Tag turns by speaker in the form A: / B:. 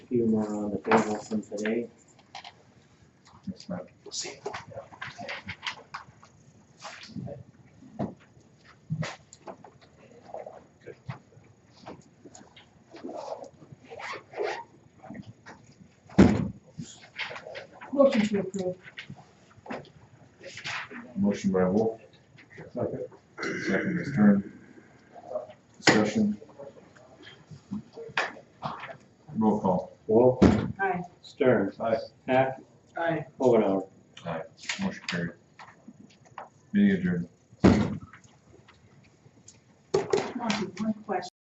A: few more on the table from today.
B: It's not the same.
C: Motion to approve.
B: Motion by Wolf. Second. Second is Stern. Discussion. Roll call.
A: Wolf.
C: Aye.
A: Stern.
B: Aye.
A: Hack.
C: Aye.
A: Overdauer.
B: Aye. Motion carried. Meeting adjourned.
C: Monty, one question.